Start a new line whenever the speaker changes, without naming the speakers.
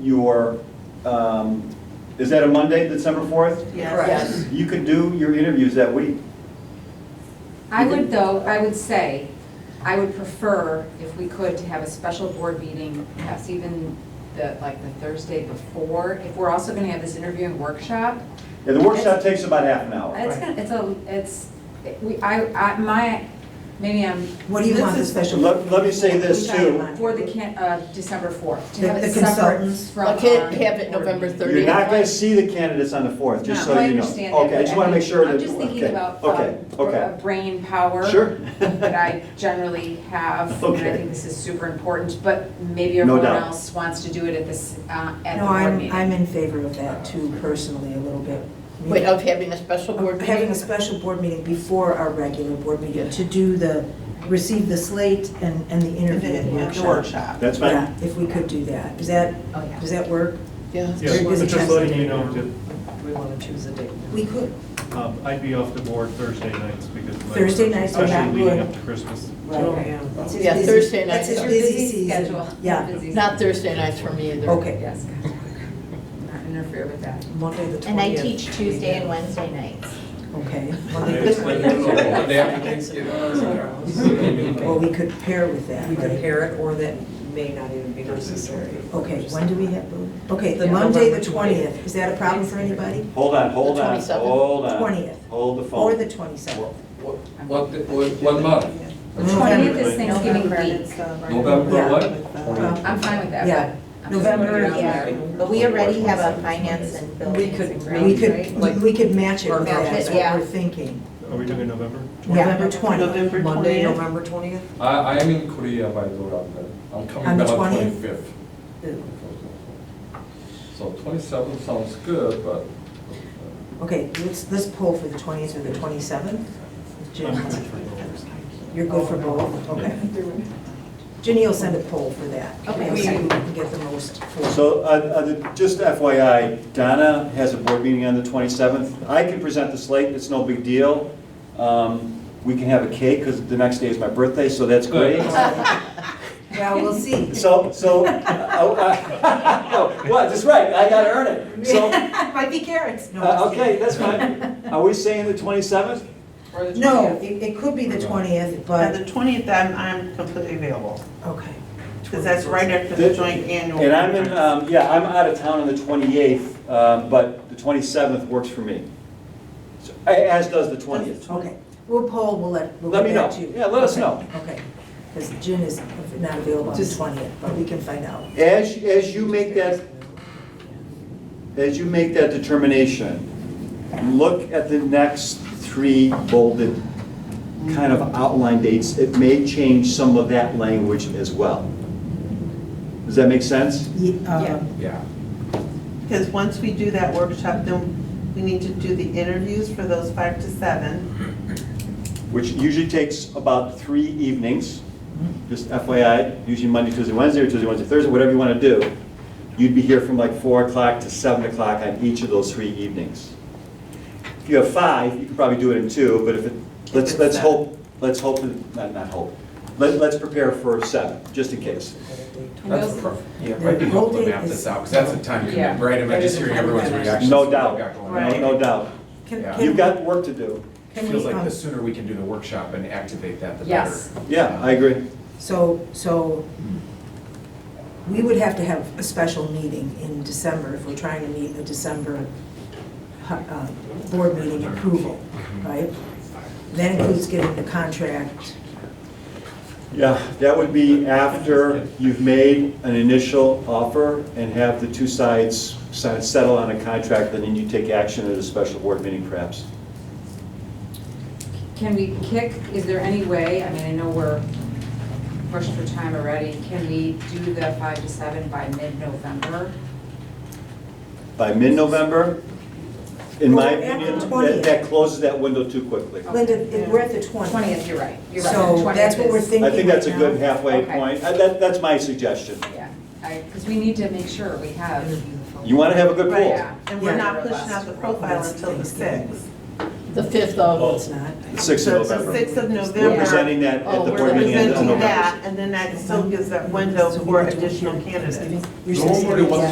your, um, is that a Monday, December 4th?
Yes.
You could do your interviews that week.
I would though, I would say, I would prefer if we could to have a special board meeting, perhaps even the, like the Thursday before, if we're also gonna have this interviewing workshop.
Yeah, the workshop takes about half an hour.
It's gonna, it's a, it's, we, I, I, my, maybe I'm,
What do you want the special?
Let, let me say this too.
for the can, uh, December fourth, to
The-
have
the
it separate
consultants?
from.
I can't
um,
have it
board
November
meeting.
You're not gonna see the candidates on the 4th, just so
No, I
you know.
understand that,
Okay, I
but
just wanna make sure that.
I'm just thinking
okay,
about,
Okay,
um, br-
okay.
brain power.
Sure.
that I generally have, and
Okay.
I think this is super important, but maybe
No
everyone
doubt.
else wants to do it at this, uh, at the
No,
board
I'm,
meeting.
I'm in favor of that too personally, a little bit.
Wait, of having a special board
Of Having a
meeting?
special board meeting before our regular board meeting to do the, receive the slate and, and the
And
interview
then have the
workshop.
workshop.
That's fine.
Yeah, if we could do that. Does that,
Oh, yeah.
does that work?
Yeah.
Yeah,
Very busy
but just
times
letting
today.
you know, that,
We want to choose a date.
We could.
um, I'd be off the board Thursday nights because. of my-
Thursday nights are not
Especially leading
good.
up to Christmas.
Right. That's his
Yeah,
busy-
Thursday night.
That's his
Your
busy season.
schedule.
Yeah,
Busy
Not
season.
Thursday nights for me either.
okay.
Yes, gotcha. Not interfere with that.
Monday the 20th.
And I teach Tuesday and Wednesday nights.
Okay. Monday the 20th. Well,
Well,
we could pair with that,
We could
right?
pair it, or that may not even be necessary.
Okay, when do we have, okay, the
Yeah.
Monday, the
November
20th, is that a problem for anybody?
Hold on, hold
The
on,
27th?
hold on.
20th.
Hold the
Or the
phone.
27th?
What, what, what month?
Twentieth is
Right.
Thanksgiving week.
November what?
I'm fine with that.
Yeah,
but I'm just
November,
putting it out
Yeah,
there.
but we already have a finance and
We
buildings
could-
and
we
grounds, right?
could, we could match it with
Match
that,
it,
that's what
yeah.
we're thinking.
Are we doing November?
November 20th,
November
Monday,
20th.
November 20th?
I, I am in Korea by the way, I'm, there. I'm
On
coming
the
back on
20th?
twenty-fifth. So twenty-seven sounds good, but.
okay, let's, let's pull for the 20th or the 27th.
I'm
Jim,
good for November.
you're good for both, okay. Ginny will send a poll for that.
Okay.
We'll see who can get the most for.
So, uh, uh, the- just FYI, Donna has a board meeting on the 27th. I can present the slate, it's no big deal. Um, We can have a cake, because the next day is my birthday, so that's great.
Well, we'll see.
So, so, oh, uh, no, what, that's right, I gotta earn it. So,
Might be carrots. No,
uh, okay, that's fine. Are we saying the 27th?
No, it, it could be the 20th,
By
but,
the twentieth, I'm, I'm completely available,
okay.
because that's right after the joint annual.
And I'm in,
conference.
um, yeah, I'm out of town on the 28th, um, but the 27th works for me. So, a- As does the 20th.
Okay, we'll poll, we'll let, we'll
Let
get
me
back
know.
to you.
Yeah, let us
Okay,
know.
Okay, because Jin is not available on the
Just-
20th, but we can find out.
As, as you make that, as you make that determination, look at the next three bolded kind of outline dates. It may change some of that language as well. Does that make sense?
Yeah.
Yeah,
Yeah.
because once we do that workshop, then we need to do the interviews for those five to seven.
Which usually takes about three evenings, just FYI, usually Monday, Tuesday, Wednesday, or Tuesday, Wednesday, Thursday, whatever you want to do. You'd be here from like four o'clock to seven o'clock on each of those three evenings. If you have five, you could probably do it in two, but if it, let's,
it's
let's
seven.
hope, let's hope, that- not, not hope. Let, let's prepare for seven, just in case.
That's
those-
perfect. Yeah,
The
might be helpful
whole
to
day
map
is-
this out, because that's a time
Yeah.
commitment, right? Am I just hearing everyone's reactions?
No
to what
doubt,
we got going on?
no, no doubt.
Can-
Yeah.
can
You've
we-
got work to do.
can
Feels
we,
like
um,
the sooner we can do the workshop and activate that, the better.
Yes.
Yeah, I agree.
So, so we would have to have a special meeting in December if we're trying to meet a December uh, board meeting approval, right? That includes getting the contract.
Yeah, that would be after you've made an initial offer and have the two sides si- settle on a contract, and then you take action at a special board meeting perhaps.
Can we kick, is there any way, I mean, I know we're pushed for time already, can we do the five to seven by mid-November?
By mid-November, in my
Well, we're at the
opinion, that-
20th.
that closes that window too quickly.
Linda, if we're at the 20th.
Twentieth, you're right, you're right.
So
20th
that's what we're
is-
thinking
I think that's a
right
good
now.
halfway
Okay.
point. Uh, That, that's my suggestion.
Yeah, I, because we need to make sure we have.
You want to have a good
Right.
pool.
Yeah.
And we're
Yeah.
not pushing out the profile until the sixth.
The fifth of,
It's not.
Sixth
So
of
the
November.
sixth of
We're
November,
presenting that at
Oh,
the
we're
board meeting in
presenting
November.
that, and then that still gives that window for additional candidates.
You're
Nobody
saying-
wants to